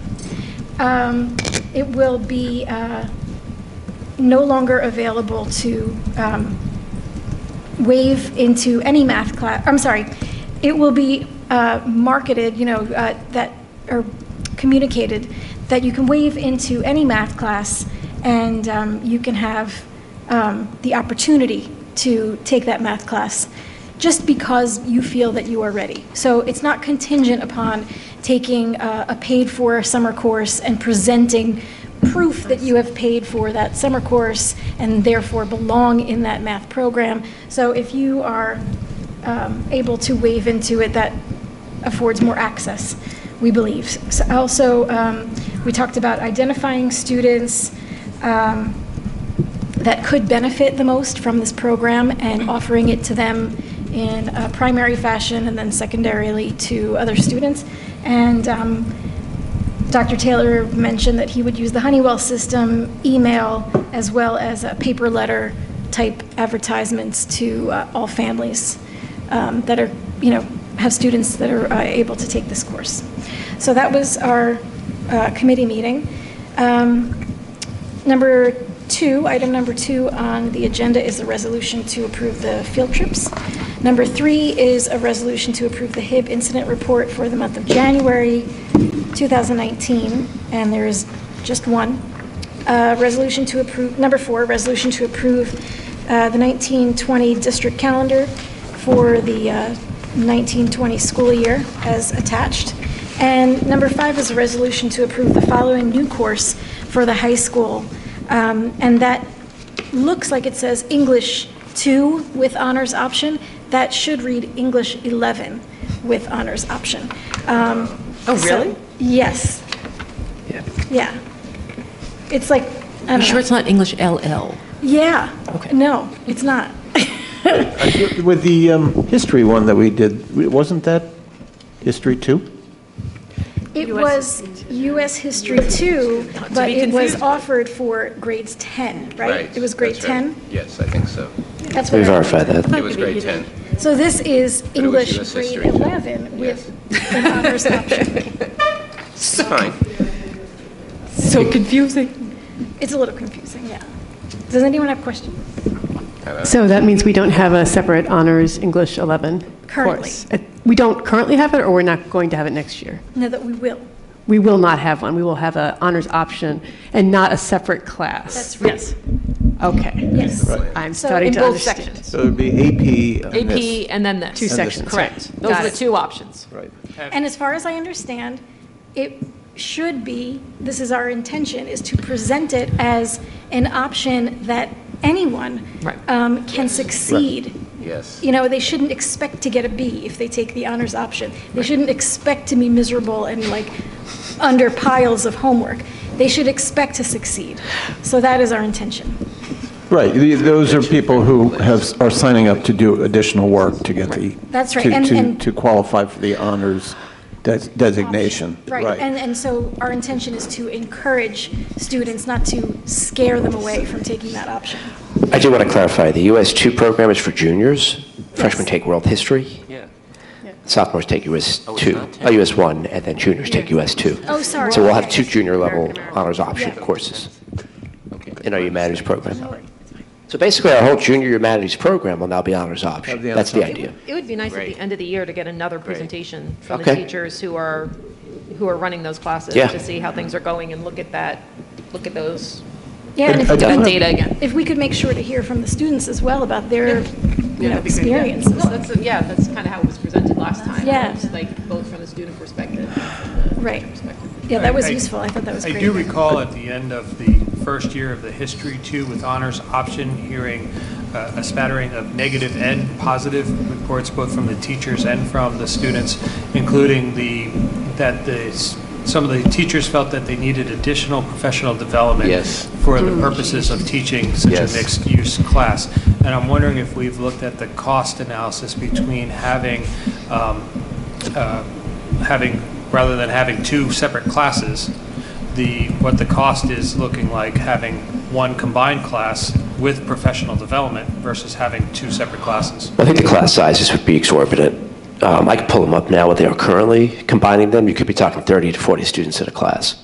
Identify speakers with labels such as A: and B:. A: um, it will be uh, no longer available to um, waive into any math class, I'm sorry, it will be uh, marketed, you know, uh, that, or communicated, that you can waive into any math class, and um, you can have um, the opportunity to take that math class, just because you feel that you are ready. So it's not contingent upon taking uh, a paid-for summer course and presenting proof that you have paid for that summer course and therefore belong in that math program. So if you are um, able to wave into it, that affords more access, we believe. So Also, um, we talked about identifying students um, that could benefit the most from this program and offering it to them in a primary fashion and then secondarily to other students. And um, Dr. Taylor mentioned that he would use the Honeywell system, email, as well as uh, paper letter type advertisements to uh, all families um, that are, you know, have students that are uh, able to take this course. So that was our uh, committee meeting. Um, Number two, item number two on the agenda is a resolution to approve the field trips. Number three is a resolution to approve the HIB incident report for the month of January 2019, and there is just one. Uh, Resolution to approve, number four, resolution to approve uh, the 1920 district calendar for the 1920 school year as attached. And number five is a resolution to approve the following new course for the high school. Um, And that looks like it says English 2 with honors option. That should read English 11 with honors option. Oh,
B: Oh, really?
A: Yes,
B: Yeah.
A: yeah. It's like, I
B: You
A: don't
B: sure
A: know.
B: it's not English LL?
A: Yeah.
B: Okay.
A: No, it's not.
C: With the um, history one that we did, wasn't that history two?
A: It was US History 2, but
B: be
A: it was
B: confused.
A: offered for grades 10, right? It was grade
D: that's
A: 10?
D: right. Yes, I think so.
A: That's what
C: We
A: I-
C: verified that.
D: It was grade 10.
A: So this is
D: it was
A: English
D: US
A: grade
D: history, too.
A: 11 with an honors option.
D: It's fine.
B: So confusing.
A: It's a little confusing, yeah. Does anyone have questions?
E: So that means we don't have a separate honors English 11
A: Currently.
E: course? Uh, We don't currently have it, or we're not going to have it next year?
A: No, that we will.
E: We will not have one. We will have an honors option and not a separate class?
A: That's right.
E: Yes. Okay.
A: Yes.
E: I'm
A: So
E: starting
A: in
E: to
A: both
E: understand.
C: So it'd be AP on this.
F: AP and then this.
E: Two sections.
F: Correct. Those are the two options.
C: Right.
A: And as far as I understand, it should be, this is our intention, is to present it as an option that anyone
F: Right.
A: um, can succeed.
D: Yes.
A: You know, they shouldn't expect to get a B if they take the honors option. They shouldn't expect to be miserable and like under piles of homework. They should expect to succeed. So that is our intention.
C: Right, the- those are people who have, are signing up to do additional work to get the.
A: That's right,
C: to-
A: and-
C: to-
A: and-
C: To qualify for the honors des- designation.
A: Right, and, and so our intention is to encourage students, not to scare them away from taking that option.
G: I do want to clarify, the US 2 program is for juniors. Freshmen take world history.
D: Yeah.
G: Sophomores take US
D: Oh, it's
G: 2,
D: not
G: uh, US 1, and then juniors take US 2.
A: Oh, sorry.
G: So we'll have
A: Okay.
G: two junior-level honors option
A: Yeah.
G: courses
D: Okay.
G: in our humanities program. So basically, our whole junior humanities program will now be honors option.
C: the
G: That's the
C: honors
G: idea.
F: It would be nice at
D: Great.
F: the end of the year to get another presentation from the
G: Okay.
F: teachers who are, who are running those classes.
G: Yeah.
F: To see how things are going and look at that, look at those,
A: Yeah, and if-
C: I
F: that
C: definitely-
F: data again.
A: if we could make sure to hear from the students as well about their, you know, experiences.
F: No, that's, yeah, that's kind of how it was presented last time.
A: Yeah.
F: It's Like, both from the student perspective.
A: Right. Yeah, that was useful. I thought that was
H: I
A: great.
H: do recall at the end of the first year of the History 2 with honors option, hearing uh, a spattering of negative and positive reports, both from the teachers and from the students, including the, that the, s- some of the teachers felt that they needed additional professional development
D: Yes.
H: for the purposes of teaching such a
D: Yes.
H: mixed-use class. And I'm wondering if we've looked at the cost analysis between having um, uh, having, rather than having two separate classes, the, what the cost is looking like having one combined class with professional development versus having two separate classes.
G: I think the class sizes would be exorbitant. Um, I could pull them up now, what they are currently. Combining them, you could be talking 30 to 40 students in a class.